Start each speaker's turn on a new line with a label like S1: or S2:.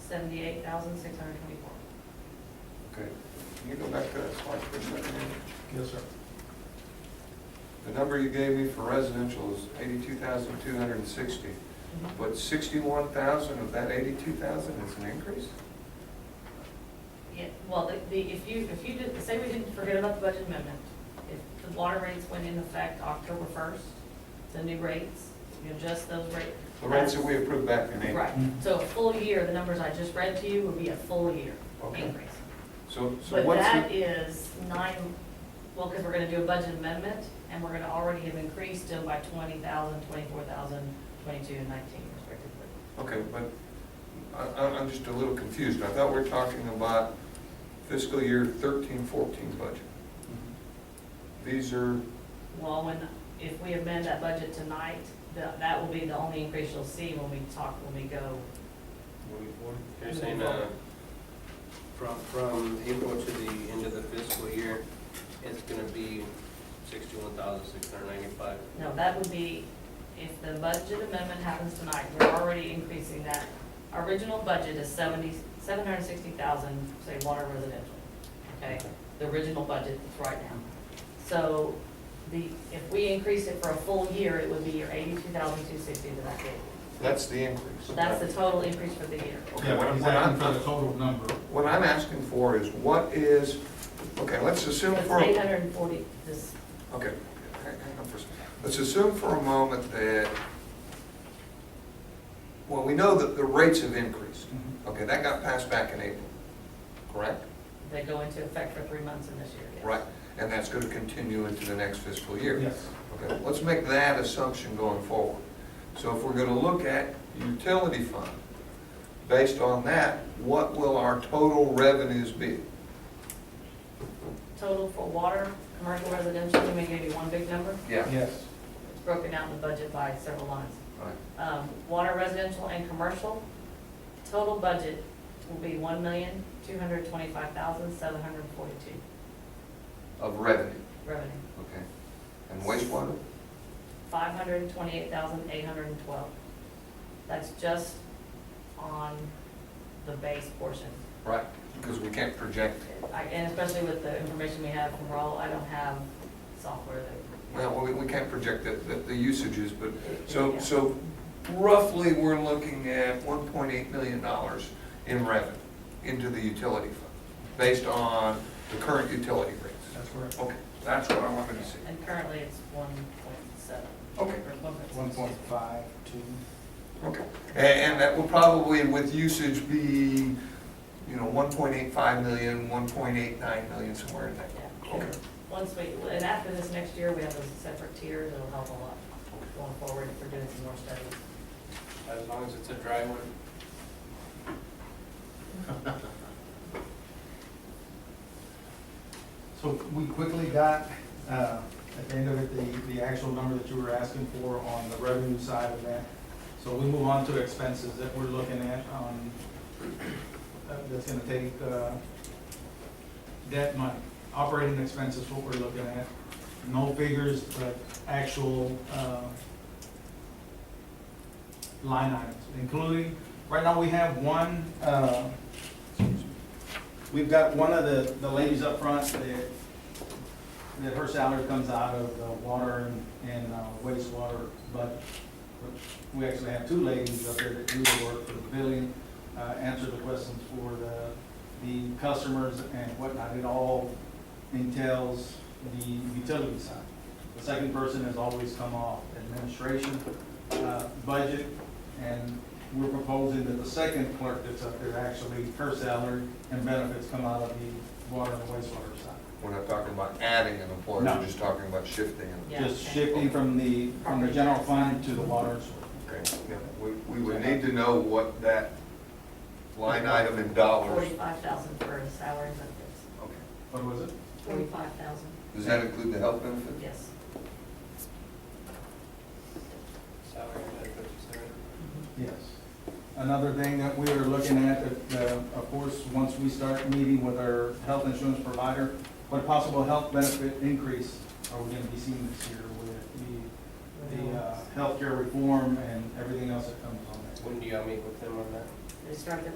S1: seventy-eight thousand, six hundred twenty-four.
S2: Okay, can you go back to that slide for a second? Andy?
S3: Yes, sir.
S2: The number you gave me for residential is eighty-two thousand two hundred and sixty, but sixty-one thousand of that eighty-two thousand is an increase?
S1: Yeah, well, the- the, if you, if you did, say we didn't forget about the budget amendment, if the water rates went into effect October first, the new rates, you adjust those rates.
S2: The rates that we approved back in April.
S1: Right, so a full year, the numbers I just read to you would be a full year
S2: Okay.
S1: increase.
S2: So, so
S1: But
S2: what's
S1: that
S2: the,
S1: is nine, well, because we're gonna do a budget amendment, and we're gonna already have increased them by twenty thousand, twenty-four thousand, twenty-two, and nineteen respectively.
S2: okay, but I, I- I'm just a little confused. I thought we we're talking about fiscal year thirteen, fourteen budget. These are,
S1: Well, when, if we amend that budget tonight, that, that will be the only increase you'll see when we talk, when we go.
S4: You're saying, uh, from, from April to the end of the fiscal year, it's gonna be sixty-one thousand, six hundred ninety-five.
S1: No, that would be, if the budget amendment happens tonight, we're already increasing that. Our original budget is seventy, seven hundred and sixty thousand, say, water residential, okay? The original budget that's right now. So the, if we increase it for a full year, it would be your eighty-two thousand, two sixty that I gave. you.
S2: that's the increase.
S1: That's the total increase for the year.
S2: Okay,
S3: Yeah,
S2: what
S3: but
S2: I'm-
S3: he's
S2: what I'm-
S3: asking for the total number.
S2: What I'm asking for is what is, okay, let's assume
S1: It's
S2: for,
S1: eight
S2: okay,
S1: hundred and forty, this,
S2: hang hang on for a second. Let's assume for a moment that, well, we know that the rates have increased.
S3: Mhm.
S2: Okay, that got passed back in April, correct?
S1: They go into effect for three months in this year, yes.
S2: Right, and that's going to continue into the next fiscal year.
S3: Yes.
S2: Okay, let's make that assumption going forward. So if we're going to look at utility fund, based on that, what will our total revenues be?
S1: Total for water, commercial residential, let me give you one big number,
S3: Yes.
S1: it's broken out in the budget by several lines.
S2: Right.
S1: Um, water residential and commercial, total budget will be one million, two hundred twenty-five thousand, seven hundred forty-two
S2: Of revenue.
S1: revenue.
S2: Okay. And wastewater?
S1: Five hundred twenty-eight thousand, eight hundred and twelve. That's just on the base portion.
S2: Right. Because we can't project.
S1: I- And especially with the information we have from Rawl, I don't have software that.
S2: Well, we, we can't project the, the- the usages, but, so, so roughly, we're looking at one point eight million dollars in revenue into the utility fund, based on the current utility rates.
S3: That's correct.
S2: Okay, that's what I wanted to see.
S1: And currently it's one point seven.
S2: Okay.
S3: One point five, two.
S2: Okay. And, and that will probably, with usage, be, you know, 1.85 million, 1.89 million, somewhere in that.
S1: Yeah.
S2: Okay.
S1: Once we, and after this next year, we have those separate tiers, it'll help a lot going forward if we're doing some more studies.
S4: As long as it's a dry one.
S3: So we quickly got, uh, at the end of it, the, the actual number that you were asking for on the revenue side of that. So we move on to expenses that we're looking at, um, uh, that's gonna take, uh, that money. Operating expenses, what we're looking at, no figures, but actual, uh, line items, including, right now we have one, uh, We've got one of the, the ladies up front that, that her salary comes out of the water and, and uh, wastewater, but we actually have two ladies up there that do the work for the billing, uh, answer the questions for the, the customers and whatnot. It all entails the utility side. The second person has always come off administration, uh, budget, and we're proposing that the second clerk that's up there, actually, her salary and benefits come out of the water and wastewater side.
S2: We're not talking about adding an employee,
S3: No.
S2: we're just talking about shifting. an-
S1: Yeah,
S3: Just
S1: okay.
S3: shifting from the, from the general fund to the water and sewer.
S2: Okay, yeah, we, we would need to know what that line item in dollars.
S1: Forty-five thousand for a salary and benefits.
S2: Okay.
S3: What was it?
S1: Forty-five thousand,
S2: Does that include the health benefit?
S1: yes.
S4: Salary, benefits, et cetera.
S3: Yes. Another thing that we are looking at, uh, of course, once we start meeting with our health insurance provider, what possible health benefit increase are we gonna be seeing this year with the, the uh, healthcare reform and everything else that comes on that?
S4: When do y'all meet with them on that?
S1: They start the